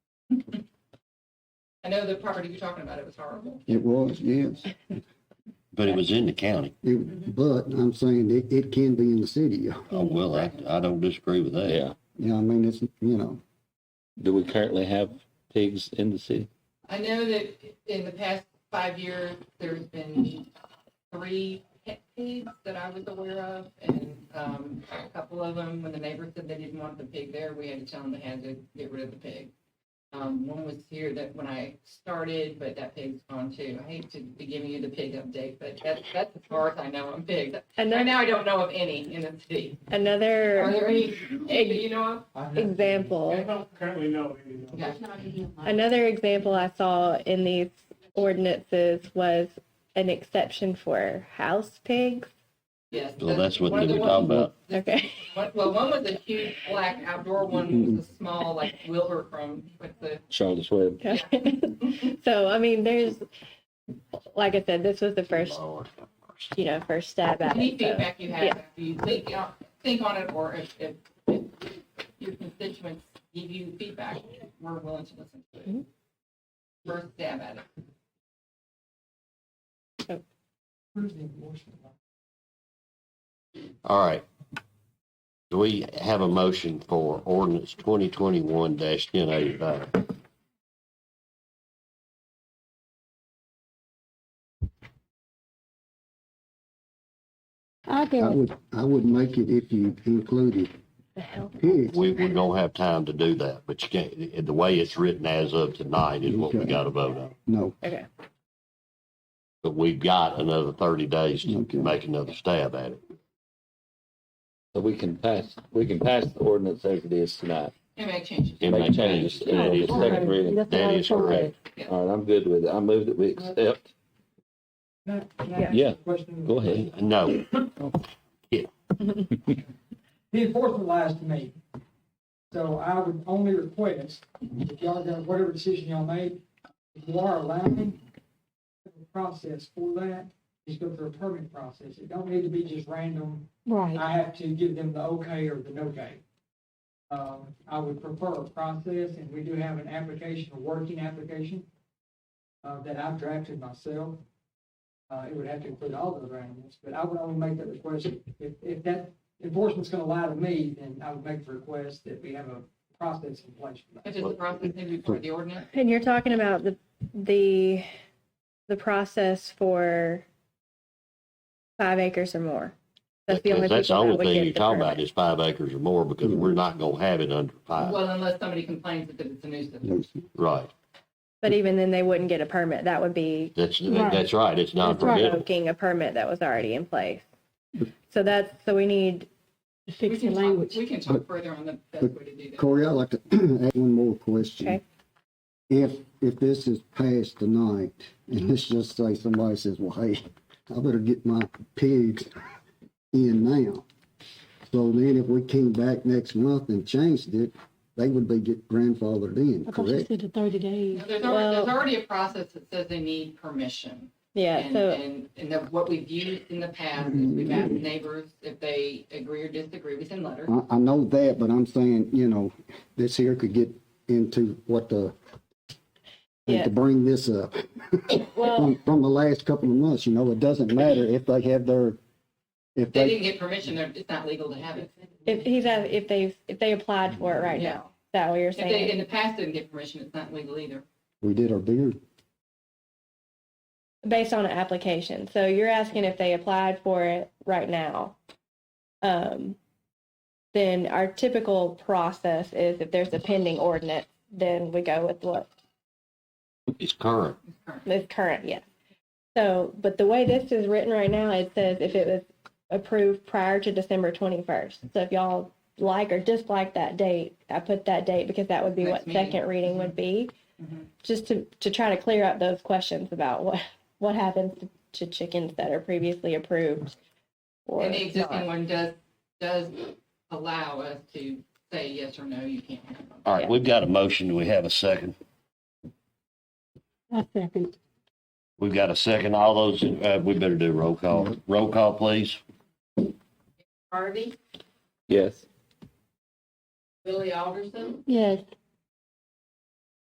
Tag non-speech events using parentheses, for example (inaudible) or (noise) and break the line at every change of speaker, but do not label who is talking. know the property you're talking about, it was horrible.
It was, yes.
But it was in the county.
It, but I'm saying it, it can be in the city.
Oh, well, I, I don't disagree with that.
Yeah.
Yeah, I mean, it's, you know,
Do we currently have pigs in the city?
I know that in the past five years, there's been three pet pigs that I was aware of, and um, a couple of them, when the neighbors said they didn't want the pig there, we had to tell them they had to get rid of the pig. Um, one was here that when I started, but that pig's gone too. I hate to be giving you the pig update, but that's that's as far as I know on pigs. Right
Another,
now, I don't know of any in the city. Are
another
there any that you know of?
example,
don't currently know any of
Okay.
another example I saw in these ordinances was an exception for house pigs.
Yes.
Well, that's what
one
they
of
were
the
talking
ones-
about.
Okay. (laughs)
One, well, one was a huge black outdoor one, was a small like Wilbur from with the.
Charlotte's Web.
so, I mean, there's, like I said, this was the first,
Lord have mercy.
you know, first stab at
Any
it. so-
feedback you have,
yeah.
if you think uh, think on it, or if, if, if your constituents give you feedback, we're willing to listen to it.
Mhm.
First stab at it.
All right. Do we have a motion for ordinance twenty twenty-one ten eighty-five?
I
I
do.
would, I would make it if you included
The hell?
pigs.
We, we don't have time to do that, but you can't, the way it's written as of tonight is what we gotta vote on.
No,
Okay.
But we've got another thirty days to
Okay.
make another stab at it.
So we can pass, we can pass the ordinance as it is tonight.
And make changes.
It may
Make changes.
change. That is
Second
correct.
reading.
That's what
That
I
is
was gonna
correct.
All right, I'm good with it. I move that we accept. Yeah, go ahead.
Uh, No,
The enforcement lies to me. So I would only request, if y'all got, whatever decision y'all make, if you are allowing the process for that, just go through a permit process. It don't need to be just random,
Right.
I have to give them the okay or the no okay. Um, I would prefer a process, and we do have an application, a working application, uh, that I've drafted myself. Uh, it would have to include all those animals, but I would only make that request, if, if that enforcement's gonna lie to me, then I would make the request that we have a process in place for that.
Which is the process maybe before the ordinance.
And you're talking about the, the, the process for five acres or more. That's the only
because that's the only
people that would
thing
get Mm-hmm.
you
the
talk
permit.
about is five acres or more, because we're not gonna have it under five,
Well, unless somebody complains that it's a nuisance.
no,
right?
But even then, they wouldn't get a permit. That would be
That's,
Right.
that's right, it's not
That's right.
permitted.
revoking a permit that was already in place. So that's, so we need,
We
Fix the
can talk-
language.
We can talk further on the best way to do that.
Corey, I'd like to (clears throat) add one more question.
Okay.
If, if this is passed tonight, and let's just say somebody says, well, hey, I better get my pigs in now. So then if we came back next month and changed it, they would be get grandfathered in,
I thought you
correct?
said the thirty days.
Now, There's already, there's
Well-
already a process that says they need permission.
yeah,
And,
so, Mm-hmm.
and, and that what we've used in the past is we've asked neighbors if they agree or disagree, we send letters.
I, I know that, but I'm saying, you know, this here could get into what the, and
Yeah.
to bring this up.
well,
Oh.
From, from the last couple of months, you know, it doesn't matter if they have their, if
If they
they,
didn't get permission, they're- it's not legal to have it.
if he's, a- if they, if they applied for it right
Yeah.
now, is that what you're
If they, in
saying?
the past, didn't get permission, it's not legal either.
we did our beer.
Based on an application. So you're asking if they applied for it right now. Um, then our typical process is if there's a pending ordinance, then we go with what
It's current.
It's current, yeah. So, but the way this is written right now, it says if it was approved prior to December twenty-first. So if y'all like or dislike that date, I put that date because that would be
Next
what
meeting.
second reading would be.
Mhm.
Just to, to try to clear up those questions about what, what happens to chickens that are previously approved. or
And the existing
not.
one does, does allow us to say yes or no, you can't. have it.
All right,
Yeah.
we've got a motion, do we have a second?
I second.
We've got a second, all those, uh, we better do roll call. Roll call, please.
Harvey,
Yes.
Billy Alderson,
Yes.